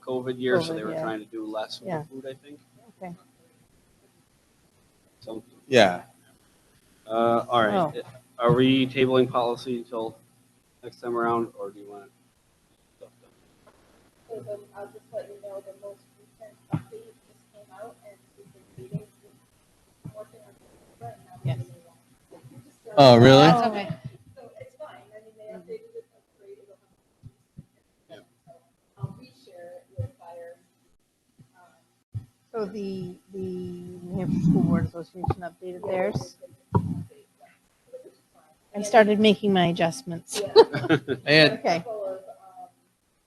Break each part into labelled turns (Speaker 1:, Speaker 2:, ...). Speaker 1: COVID year, so they
Speaker 2: COVID,
Speaker 1: were
Speaker 2: yeah.
Speaker 1: trying to do less with
Speaker 2: Yeah.
Speaker 1: the food, I think.
Speaker 2: Okay.
Speaker 1: So,
Speaker 3: Yeah,
Speaker 1: uh, all right.
Speaker 2: Oh.
Speaker 1: Are we tabling policy until next time around, or do you want? to
Speaker 4: So the, I'll just let you know, the most recent update just came out and we've been meeting, we're working on it right now.
Speaker 5: Yes.
Speaker 4: So-
Speaker 3: Oh, really?
Speaker 5: That's okay.
Speaker 4: So it's fine, I mean, they updated it and created a.
Speaker 1: Yeah.
Speaker 4: So I'll reshare it with fire. um,
Speaker 2: So the, the New Hampshire School Board Association updated theirs and started making my adjustments.
Speaker 4: Yeah.
Speaker 3: I had
Speaker 2: Okay.
Speaker 4: couple of, um,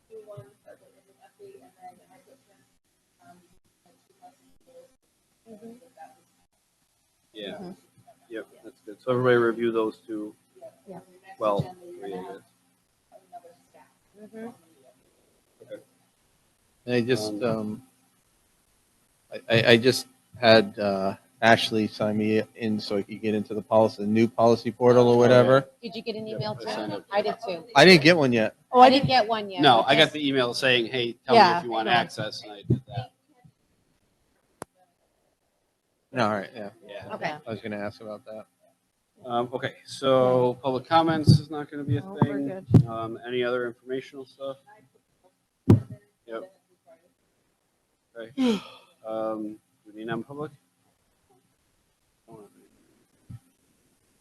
Speaker 4: new ones that were in the update, and then I put them, um, like two lessons ago. That was-
Speaker 1: Yeah,
Speaker 2: Mhm.
Speaker 1: yep, that's good. So everybody review those two.
Speaker 4: yeah.
Speaker 2: Yeah.
Speaker 4: The next
Speaker 1: Well,
Speaker 4: agenda, you're
Speaker 1: three, I
Speaker 4: gonna have
Speaker 1: guess.
Speaker 4: another stack.
Speaker 2: Mhm.
Speaker 3: And I just, um, I- I, I just had, uh, Ashley sign me in so I could get into the policy, the new policy portal or whatever.
Speaker 5: Did you get an
Speaker 1: Yeah,
Speaker 5: email
Speaker 1: I
Speaker 5: too?
Speaker 1: signed up.
Speaker 5: I did too.
Speaker 3: I didn't get one yet.
Speaker 2: Oh,
Speaker 5: I didn't get one yet.
Speaker 1: No,
Speaker 5: but
Speaker 1: I got
Speaker 5: this-
Speaker 1: the email saying, hey, tell me
Speaker 2: Yeah,
Speaker 1: if you want
Speaker 2: I know.
Speaker 1: access, and I did that.
Speaker 3: No, all right, yeah,
Speaker 1: Yeah.
Speaker 2: Okay.
Speaker 3: I was gonna ask about that.
Speaker 1: Um, okay, so public comments is not gonna be a
Speaker 2: Oh, we're
Speaker 1: thing.
Speaker 2: good.
Speaker 1: Um, any other informational stuff? Yep. Okay. Um, do we need non-public?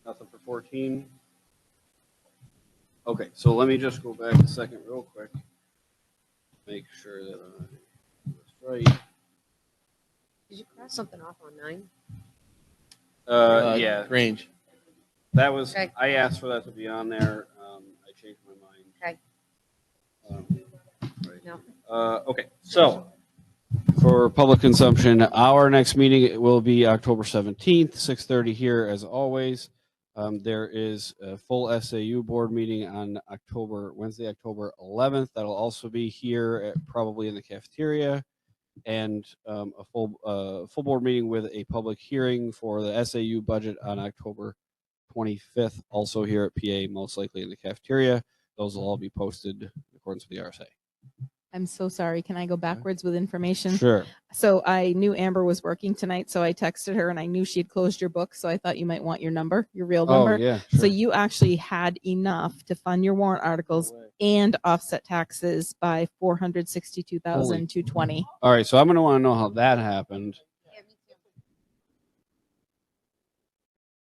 Speaker 1: Nothing for fourteen? Okay, so let me just go back a second real quick. Make sure that I was right.
Speaker 6: Did you cross something off on nine?
Speaker 1: Uh, yeah,
Speaker 3: Range.
Speaker 1: that was,
Speaker 6: Okay.
Speaker 1: I asked for that to be on there. Um, I changed my mind.
Speaker 6: Okay.
Speaker 1: Um, right.
Speaker 6: No.
Speaker 1: Uh, okay, so for public consumption, our next meeting will be October seventeenth, six thirty here as always. Um, there is a full SAU board meeting on October, Wednesday, October eleventh. That'll also be here at, probably in the cafeteria. And, um, a full, uh, full board meeting with a public hearing for the SAU budget on October twenty-fifth, also here at PA, most likely in the cafeteria. Those will all be posted in accordance with the RSA.
Speaker 7: I'm so sorry. Can I go backwards with information?
Speaker 1: Sure.
Speaker 7: So I knew Amber was working tonight, so I texted her and I knew she had closed your book, so I thought you might want your number, your real
Speaker 1: Oh,
Speaker 7: number.
Speaker 1: yeah.
Speaker 7: So you actually had enough to fund your warrant articles and offset taxes by four hundred sixty-two thousand two twenty.
Speaker 1: All right. So I'm going to want to know how that happened.
Speaker 6: Yeah, me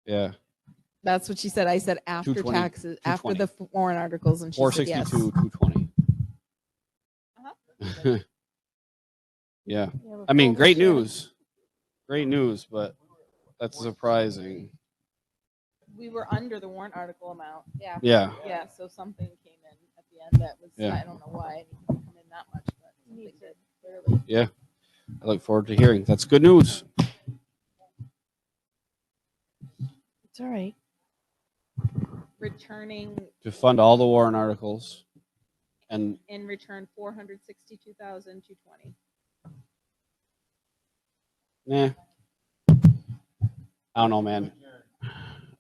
Speaker 6: too.
Speaker 1: Yeah.
Speaker 7: That's what she said. I said after
Speaker 1: 220,
Speaker 7: taxes, after the f- warrant articles, and she said yes.
Speaker 1: 462, 220. yeah. I mean, great news. Great news, but that's surprising.
Speaker 7: We were under the warrant article amount.
Speaker 5: Yeah.
Speaker 1: Yeah.
Speaker 7: Yeah, so something came in at the end that was,
Speaker 1: Yeah.
Speaker 7: I don't know why it needed to come in that much, but something
Speaker 2: Needs
Speaker 7: did, clearly.
Speaker 1: I look forward to hearing. That's good news.
Speaker 2: It's all right.
Speaker 7: returning
Speaker 1: To fund all the Warren articles and
Speaker 7: in return four hundred sixty-two thousand two twenty.
Speaker 1: Nah. I don't know, man.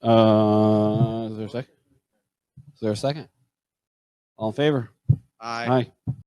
Speaker 1: Uh, is there a second? Is there a second? All in favor?
Speaker 3: I.
Speaker 1: Aye.